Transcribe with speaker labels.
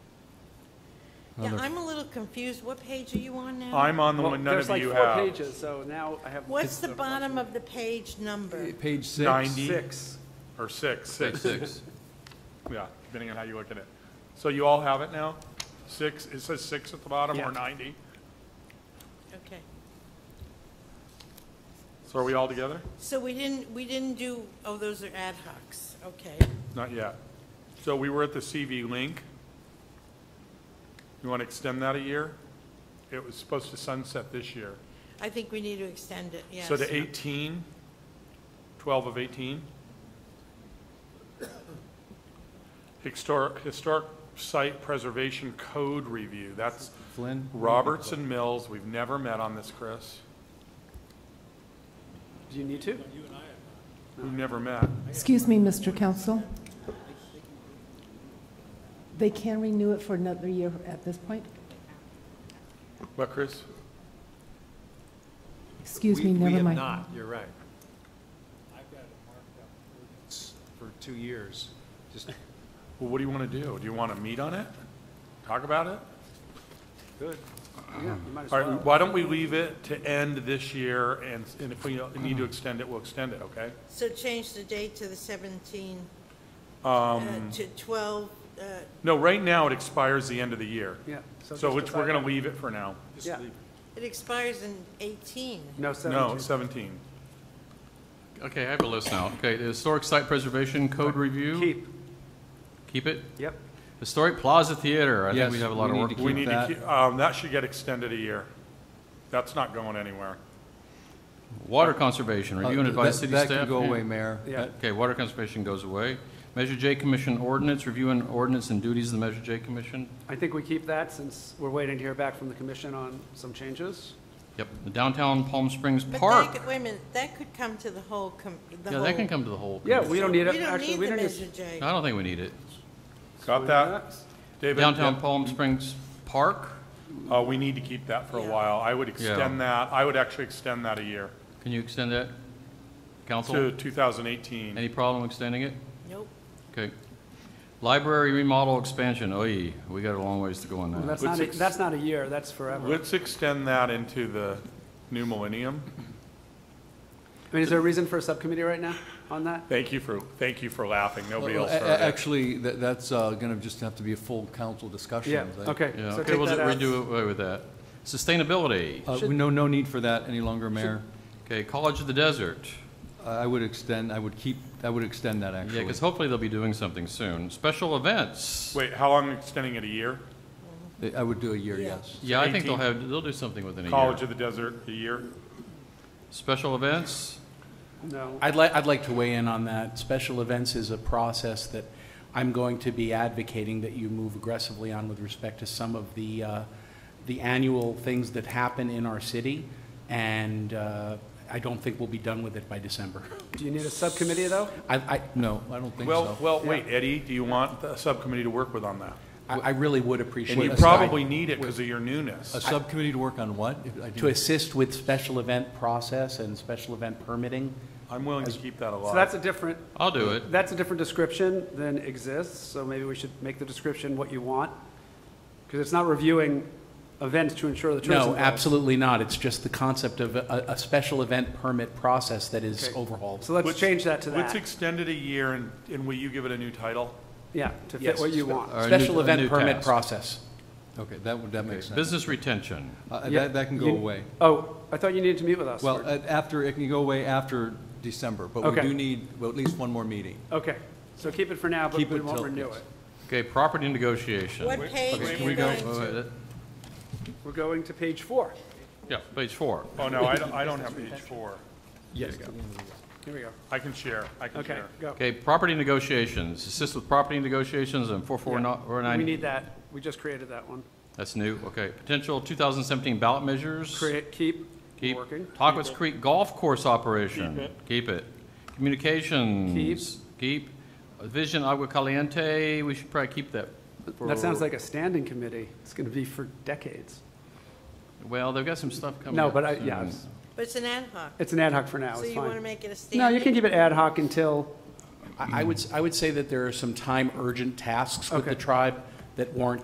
Speaker 1: Yeah, I'm a little confused. What page are you on now?
Speaker 2: I'm on the
Speaker 3: Well,
Speaker 2: one none of you
Speaker 3: There's like four
Speaker 2: have.
Speaker 3: pages, so now I have.
Speaker 1: What's the bottom of the page number?
Speaker 4: Page six.
Speaker 2: Ninety?
Speaker 3: Six.
Speaker 2: Or six,
Speaker 5: Page
Speaker 2: six,
Speaker 5: six.
Speaker 2: yeah, depending on how you look at it. So you all have it now? Six, it says six at the bottom
Speaker 3: Yeah.
Speaker 2: or ninety?
Speaker 1: Okay.
Speaker 2: So are we all together?
Speaker 1: So we didn't, we didn't do, oh, those are ad hocs. Okay.
Speaker 2: Not yet. So we were at the CV link. You want to extend that a year? It was supposed to sunset this year.
Speaker 1: I think we need to extend it, yes.
Speaker 2: So to 18, 12 of 18. Historic, Historic Site Preservation Code Review, that's
Speaker 4: Flynn?
Speaker 2: Roberts and Mills, we've never met on this, Chris.
Speaker 3: Do you need to?
Speaker 2: We've never met.
Speaker 6: Excuse me, Mr. Council. They can renew it for another year at this point?
Speaker 2: What, Chris?
Speaker 6: Excuse
Speaker 7: We-
Speaker 6: me,
Speaker 7: We
Speaker 6: never
Speaker 7: have
Speaker 6: mind.
Speaker 7: not, you're right. I've got it marked up for two years. Just,
Speaker 2: Well, what do you want to do? Do you want to meet on it? Talk about it?
Speaker 3: Good. Yeah, you might as
Speaker 2: All right,
Speaker 3: well.
Speaker 2: why don't we leave it to end this year, and, and if we need to extend it, we'll extend it, okay?
Speaker 1: So change the date to the 17, um. To 12, uh,
Speaker 2: No, right now, it expires the end of the year.
Speaker 3: Yeah.
Speaker 2: So
Speaker 3: just
Speaker 2: it's, we're
Speaker 3: decide-
Speaker 2: going to leave it for now.
Speaker 3: Yeah.
Speaker 1: it expires in 18.
Speaker 3: No,
Speaker 2: No, 17.
Speaker 3: seventeen.
Speaker 5: Okay, I have a list now. Okay, the Historic Site Preservation Code Review,
Speaker 3: Keep,
Speaker 5: keep it.
Speaker 3: yep.
Speaker 5: Historic Plaza Theater, I
Speaker 4: Yes,
Speaker 5: think we have a
Speaker 4: we
Speaker 5: lot of
Speaker 4: need
Speaker 5: work.
Speaker 4: to
Speaker 5: to do.
Speaker 2: We need to,
Speaker 4: that.
Speaker 2: keep- um, that should get extended a year. That's not going anywhere.
Speaker 5: Water Conservation,
Speaker 4: Uh,
Speaker 5: review and
Speaker 4: that-
Speaker 5: advise city staff.
Speaker 4: That can go
Speaker 5: Yeah.
Speaker 4: away, Mayor. Uh,
Speaker 3: Yeah.
Speaker 5: Okay, Water Conservation goes away. Measure J Commission Ordinance, review and ordinance and duties of the Measure J Commission.
Speaker 3: I think we keep that since we're waiting to hear back from the commission on some changes.
Speaker 5: Yep, the Downtown Palm Springs
Speaker 1: But that
Speaker 5: Park.
Speaker 1: could- Wait a minute, that could come to the whole, com- the whole.
Speaker 5: Yeah, that can come to the whole.
Speaker 3: Yeah, we don't need
Speaker 1: We
Speaker 3: it,
Speaker 1: don't
Speaker 3: actually,
Speaker 1: need
Speaker 3: we
Speaker 1: the
Speaker 3: don't
Speaker 1: Measure
Speaker 3: need.
Speaker 1: J.
Speaker 5: I don't think we need it.
Speaker 2: Got that? David?
Speaker 5: Downtown Palm Springs Park,
Speaker 2: Uh, we need to keep that for a
Speaker 1: Yeah.
Speaker 2: while. I would extend that, I would actually extend that a year
Speaker 5: can you extend that?
Speaker 2: to
Speaker 5: Council,
Speaker 2: 2018.
Speaker 5: any problem extending it?
Speaker 1: Nope.
Speaker 5: Okay. Library remodel expansion, oy, we got a long ways to go on that.
Speaker 3: That's not, a-
Speaker 2: Let's ex-
Speaker 3: that's not a year, that's forever.
Speaker 2: Let's extend that into the new millennium.
Speaker 3: I mean, is there a reason for a subcommittee right now on that?
Speaker 2: Thank you for, thank you for laughing. Nobody
Speaker 4: Well, uh,
Speaker 2: else
Speaker 4: a- a-
Speaker 2: heard it.
Speaker 4: Actually, that, that's uh, gonna just have to be a full council discussion.
Speaker 3: Yeah,
Speaker 4: I think.
Speaker 3: okay.
Speaker 5: Yeah,
Speaker 3: so
Speaker 5: okay,
Speaker 3: take
Speaker 5: we'll
Speaker 3: that
Speaker 5: just
Speaker 3: out.
Speaker 5: redo away with that. Sustainability,
Speaker 4: Uh, no, no need for that any longer, Mayor.
Speaker 5: okay, College of the Desert.
Speaker 4: I I would extend, I would keep, I would extend that,
Speaker 5: Yeah,
Speaker 4: actually.
Speaker 5: because hopefully they'll be doing something soon. Special events.
Speaker 2: Wait, how long extending it? A year?
Speaker 4: I- I would do a year,
Speaker 1: Yeah.
Speaker 4: yes.
Speaker 5: Yeah, I think they'll
Speaker 2: 18.
Speaker 5: have, they'll do something within a
Speaker 2: College
Speaker 5: year.
Speaker 2: of the Desert, a year?
Speaker 5: Special events,
Speaker 3: No.
Speaker 8: I'd like, I'd like to weigh in on that. Special events is a process that I'm going to be advocating that you move aggressively on with respect to some of the, uh, the annual things that happen in our city, and uh, I don't think we'll be done with it by December.
Speaker 3: Do you need a subcommittee, though?
Speaker 8: I, I,
Speaker 4: No, I don't think
Speaker 2: Well,
Speaker 4: so.
Speaker 2: well, wait, Eddie, do you want the subcommittee to work with on that?
Speaker 8: I I really would appreciate.
Speaker 2: And you
Speaker 8: a-
Speaker 2: probably need it because of your newness.
Speaker 4: A subcommittee to work on what? If I
Speaker 8: To
Speaker 4: didn't-
Speaker 8: assist with special event process and special event permitting.
Speaker 2: I'm willing to keep that alive.
Speaker 3: So that's a different,
Speaker 5: I'll do it.
Speaker 3: that's a different description than exists, so maybe we should make the description what you want, because it's not reviewing events to ensure the tourism.
Speaker 8: No,
Speaker 3: goals.
Speaker 8: absolutely not. It's just the concept of a, a a special event permit process that is overhauled.
Speaker 3: So let's change that to
Speaker 2: Let's
Speaker 3: that,
Speaker 2: extend it a year, and, and will you give it a new title?
Speaker 3: yeah, to fit
Speaker 8: Yes.
Speaker 3: what you want.
Speaker 5: Or a new-
Speaker 8: Special
Speaker 5: a
Speaker 8: event
Speaker 5: new
Speaker 8: permit
Speaker 5: task.
Speaker 8: process.
Speaker 4: Okay, that would, that makes sense.
Speaker 5: business retention.
Speaker 4: Uh,
Speaker 3: Yeah,
Speaker 4: That, that can go
Speaker 3: you-
Speaker 4: away.
Speaker 3: Oh, I thought you needed to meet with us.
Speaker 4: Well,
Speaker 3: or-
Speaker 4: uh, after, it can go away after December, but we
Speaker 3: Okay.
Speaker 4: do need well, at least one more meeting.
Speaker 3: Okay, so keep it for now, but
Speaker 4: uh, keep
Speaker 3: we
Speaker 4: it
Speaker 3: won't
Speaker 4: till-
Speaker 3: renew
Speaker 4: yes.
Speaker 3: it.
Speaker 5: Okay, property negotiation.
Speaker 1: What page
Speaker 5: Okay,
Speaker 1: are
Speaker 5: can
Speaker 1: you
Speaker 5: we go-
Speaker 1: going
Speaker 5: wait,
Speaker 1: to?
Speaker 5: wait, that-
Speaker 3: We're going to page four.
Speaker 5: Yeah, page four.
Speaker 2: Oh, no, I don't, I don't have page four.
Speaker 4: Yes.
Speaker 3: Here we go.
Speaker 2: I can share, I can
Speaker 3: Okay,
Speaker 2: share.
Speaker 3: go.
Speaker 5: Okay, property negotiations, assist with property negotiations and four four nine.
Speaker 3: We need that, we just created that one.
Speaker 5: That's new, okay. Potential 2017 ballot measures.
Speaker 3: Create, keep,
Speaker 5: Keep.
Speaker 3: working.
Speaker 5: Tockwitz Creek Golf Course operation. Keep it. Communications. Keep. Vision Agua Caliente, we should probably keep that.
Speaker 3: That sounds
Speaker 5: for-
Speaker 3: like a standing committee, it's going to be for decades.
Speaker 5: Well, they've got some stuff coming
Speaker 3: No,
Speaker 5: up
Speaker 3: but I,
Speaker 5: soon.
Speaker 3: yeah, it's-
Speaker 1: But it's an ad hoc.
Speaker 3: it's an ad hoc for now,
Speaker 1: So
Speaker 3: it's
Speaker 1: you want to
Speaker 3: fine.
Speaker 1: make it a standing?
Speaker 3: No, you can keep it ad hoc until,
Speaker 8: I I would, s- I would say that there are some time urgent tasks with the
Speaker 3: Okay.
Speaker 8: tribe that warrant